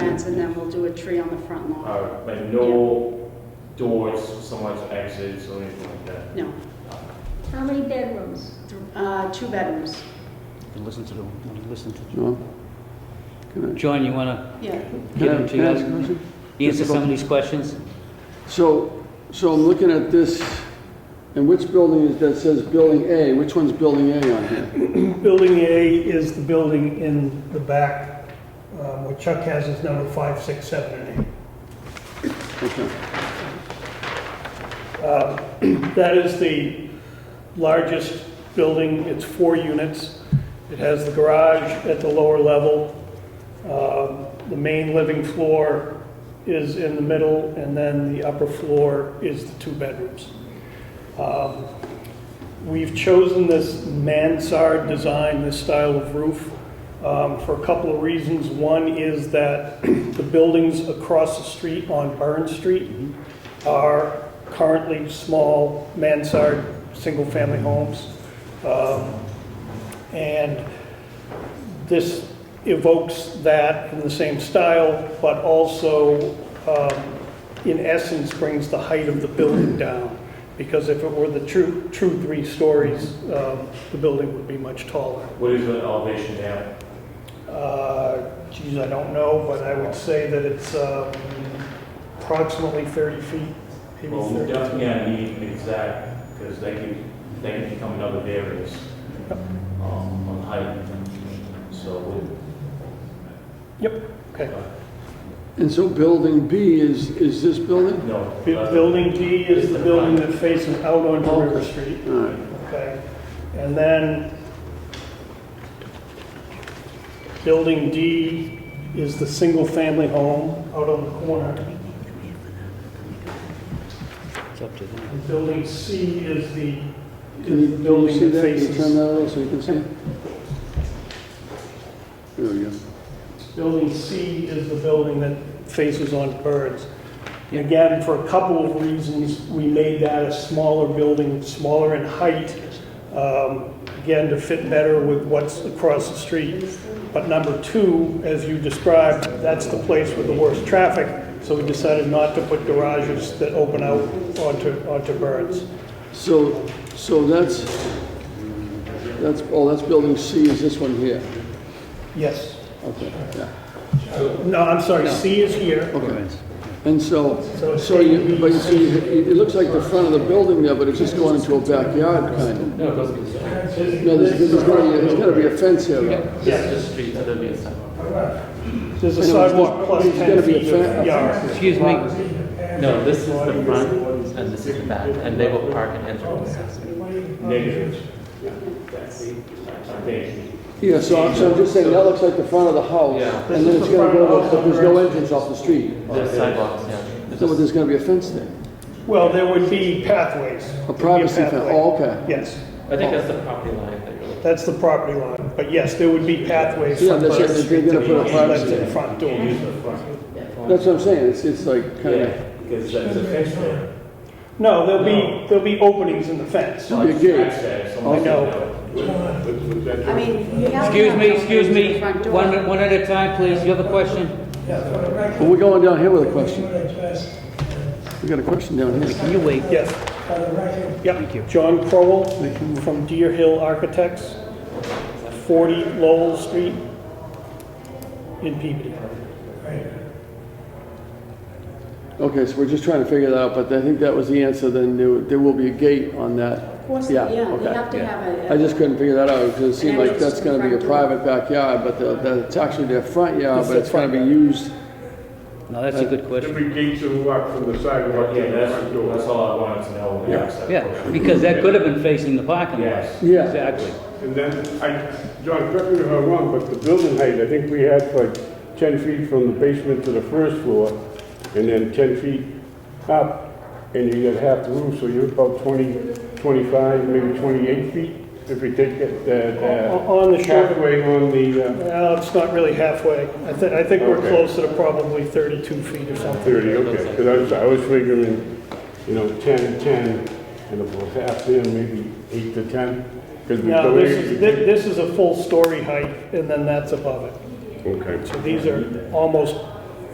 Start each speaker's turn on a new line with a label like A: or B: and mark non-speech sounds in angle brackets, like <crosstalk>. A: fence and then we'll do a tree on the front lawn.
B: Uh, like no doors, someone's exits or anything like that.
A: No,
C: How many bedrooms?
A: uh, two bedrooms,
D: And listen to them, listen to
E: No? Can I-
D: John, you want
A: yeah.
D: to
E: can
D: give
E: I
D: them
E: can I ask a
D: to
E: question?
D: you? Answer some of these questions?
E: So, so I'm looking at this, and which building is, that says Building A, which one's Building A on here?
F: Building A is the building in the back, um, what Chuck has is number five, six, seven, and eight.
E: Okay.
F: Um, That is the largest building, it's four units. It has the garage at the lower level. Um, The main living floor is in the middle, and then the upper floor is the two bedrooms. Um, We've chosen this mansard design, this style of roof, um, for a couple of reasons. One is that <clears throat> the buildings across the street on Burn Street are currently small mansard, single-family homes. Um, And this evokes that in the same style, but also, um, in essence, brings the height of the building down. Because if it were the true, true three stories, um, the building would be much taller.
B: What is the elevation down?
F: Uh, Geez, I don't know, but I would say that it's um, approximately 30 feet, maybe
B: Well, we
F: 30.
B: definitely gotta need an exact, because that can, that can become another variance, um, on height. So, we- Uh,
F: Yep, okay.
E: And so Building B is, is this building?
B: no. Uh,
F: Bu- Building D is the building that faces out onto River Street,
E: All right.
F: okay? And then Building D is the single-family home out on the corner.
D: It's up to them.
F: And Building C is the,
E: Can
F: is
E: you,
F: the
E: can you see
F: building that
E: that? Can you turn
F: faces.
E: that a little so you can see? it? There we go.
F: Building C is the building that faces on Burns. Again, for a couple of reasons, we made that a smaller building, smaller in height, um, again, to fit better with what's across the street. But number two, as you described, that's the place with the worst traffic, so we decided not to put garages that open out onto, onto Burns.
E: So, so that's, that's, oh, that's Building C is this one here?
F: Yes.
E: Okay, yeah,
F: No, I'm sorry, C is here.
E: okay. And so,
F: So it's
E: so you,
F: A,
E: but
F: B,
E: you see, it it looks like the front of the building there, but it's just going into a backyard kind of.
G: No, it doesn't.
E: No, there's, there's gotta be, there's gotta be a fence here though.
G: This is the street, so there'll be a sidewalk.
F: There's a
E: I know, it's
F: sidewalk
E: not-
F: plus
E: it's gotta
F: 10
E: be a
F: feet of
E: fence.
F: yard.
D: Excuse me,
G: No, this is the front and this is the back, and they will park and enter on the side.
B: Negative. I think.
E: Yeah, so I'm, so I'm just saying, that looks like the front of the house.
G: Yeah.
E: And then it's gonna go, but there's no entrance off the street.
G: There's sidewalks, yeah.
E: So there's gonna be a fence there.
F: Well, there would be pathways. There'd be
E: A privacy fence,
F: pathway.
E: oh, okay.
F: Yes,
G: I think that's the property line that you're looking
F: that's the property line, but yes, there would be pathways
E: Yeah,
F: from
E: that's
F: the
E: it, they're
F: street to
E: gonna
F: the
E: put a
F: inlet
E: privacy
F: to the front door.
E: That's what I'm saying, it's, it's like kinda,
B: Yeah, because that's a fence there.
F: No, there'll be, there'll be openings in the fence.
E: Should be a gate.
B: That's there, someone
D: Oh,
F: I know.
B: should know.
A: I mean, you have to
D: excuse
A: have
D: me,
A: the
D: excuse
A: front
D: me,
A: door.
D: one, one at a time, please, you have a question?
E: but we're going down here with a question. We got a question down here.
D: Can you wait?
F: Yes. Yep, John Crowell from Deer Hill Architects, 40 Lowell Street in Peabody.
E: Okay, so we're just trying to figure that out, but I think that was the answer, then there, there will be a gate on that.
A: Of course,
E: Yeah,
A: yeah, you
E: okay,
A: have to have a.
E: I just couldn't figure that out, because it seemed like that's gonna be a
A: And then
E: private backyard, but the, the, it's actually their front yard,
F: It's
E: but
F: their
E: it's gonna be
F: front
E: used.
D: No, that's a good question.
H: Every gate to walk from the sidewalk to
B: Yeah,
H: the
B: that's,
H: front door.
B: that's all I wanted to know. when I asked that
D: Yeah,
B: question.
D: because that could have been facing the parking lot.
B: Yes.
E: Yeah.
D: Exactly.
H: And then, I, John, correct me if I'm wrong, but the building height, I think we had like 10 feet from the basement to the first floor, and then 10 feet up, and you got half the roof, so you're about 20, 25, maybe 28 feet, if we take that,
F: O-
H: that
F: On the
H: uh,
F: short
H: halfway on the uh,
F: Well, it's not really halfway. I think, I think we're
H: Okay.
F: closer to probably 32 feet or something.
H: 30, okay, because I was, I was figuring, you know, 10, 10, and it was half there, maybe 8 to 10, because we...
F: Now, this is, thi- this is a full story height, and then that's above it.
H: Okay.
F: These are almost